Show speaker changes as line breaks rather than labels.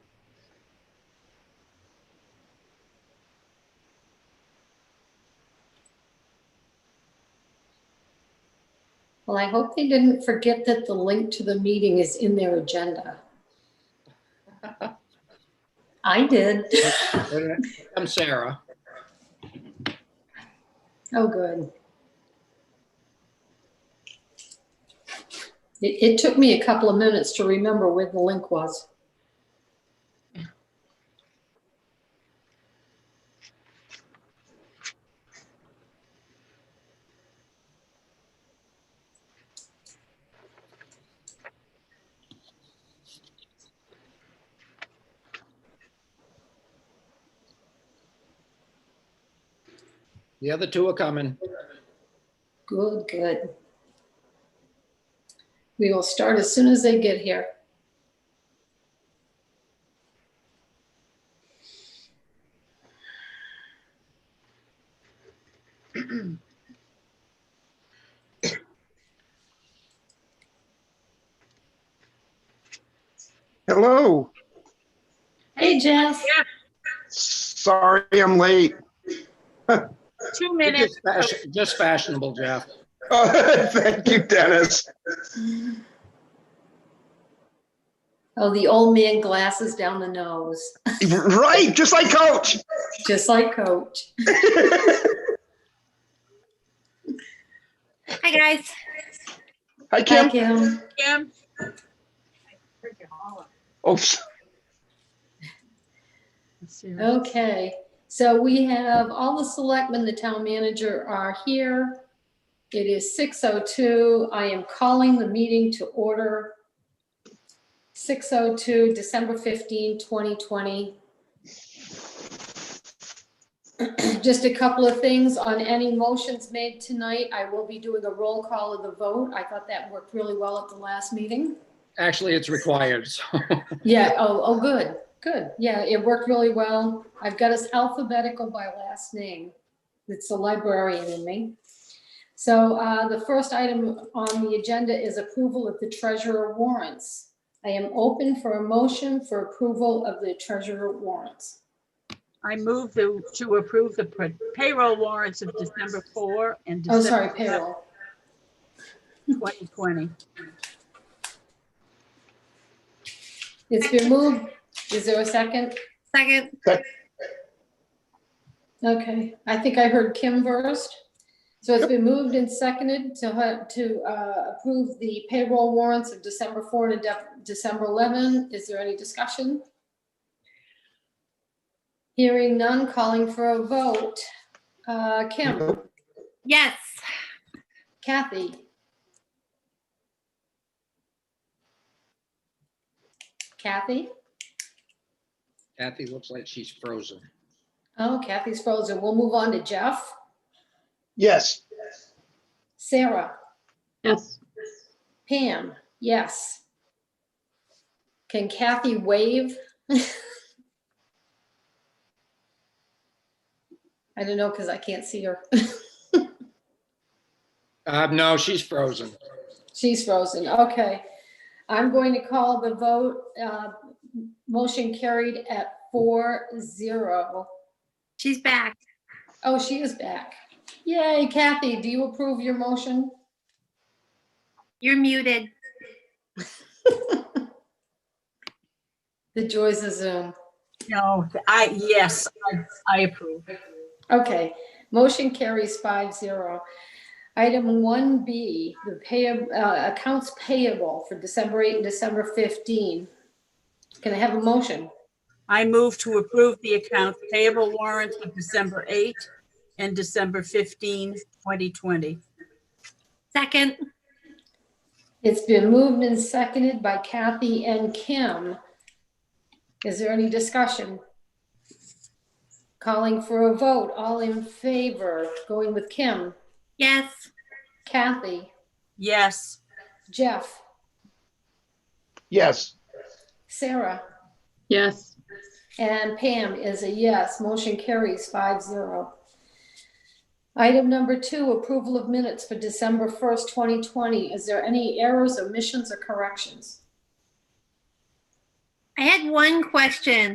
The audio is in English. Well, I hope they didn't forget that the link to the meeting is in their agenda. I did.
I'm Sarah.
Oh, good. It, it took me a couple of minutes to remember where the link was.
The other two are coming.
Good, good. We will start as soon as they get here.
Hello,
Hey, Jess.
sorry I'm late.
Two
You're
minutes.
Just fash- just fashionable, Jeff.
Thank you, Dennis.
Oh, the old man glasses down the nose,
Right, just like Coach.
just like Coach.
Hi, guys.
Hi,
Hi,
Kim.
Kim.
Kim?
Oops.
Okay, so we have all the selectmen, the town manager are here. It is 6:02. I am calling the meeting to order. 6:02, December 15, 2020. Just a couple of things on any motions made tonight. I will be doing a roll call of the vote. I thought that worked really well at the last meeting.
Actually, it's required. so.
Yeah, oh, oh, good, good. Yeah, it worked really well. I've got us alphabetical by last name. It's the librarian in me. So uh, the first item on the agenda is approval of the treasurer warrants. I am open for a motion for approval of the treasurer warrants.
I move to, to approve the pr- payroll warrants of December 4 and
Oh, sorry,
December
payroll.
2020.
It's been moved. Is there a second?
Second.
Okay, I think I heard Kim first. So it's been moved and seconded to, ha- to uh, approve the payroll warrants of December 4 to Dec- December 11. Is there any discussion? Hearing none, calling for a vote. Uh, Kim,
Yes.
Kathy, Kathy?
Kathy looks like she's frozen.
Oh, Kathy's frozen. We'll move on to Jeff.
Yes,
Sarah?
Yes.
Pam, yes. Can Kathy wave? I don't know, because I can't see her.
Uh, no, she's frozen.
She's frozen, okay. I'm going to call the vote, uh, motion carried at four zero.
She's back.
Oh, she is back. Yay, Kathy, do you approve your motion?
You're muted.
The joys of Zoom.
No, I, yes, I- I approve.
Okay, motion carries five zero. Item one B, the pay, uh, accounts payable for December eight and December fifteen. Can I have a motion?
I move to approve the accounts payable warrants of December 8 and December 15, 2020.
Second.
It's been moved and seconded by Kathy and Kim. Is there any discussion? Calling for a vote, all in favor, going with Kim,
Yes.
Kathy,
Yes,
Jeff,
yes,
Sarah,
Yes,
And Pam is a yes. Motion carries five zero. Item number two, approval of minutes for December first, twenty twenty. Is there any errors, omissions, or corrections?
I had one question.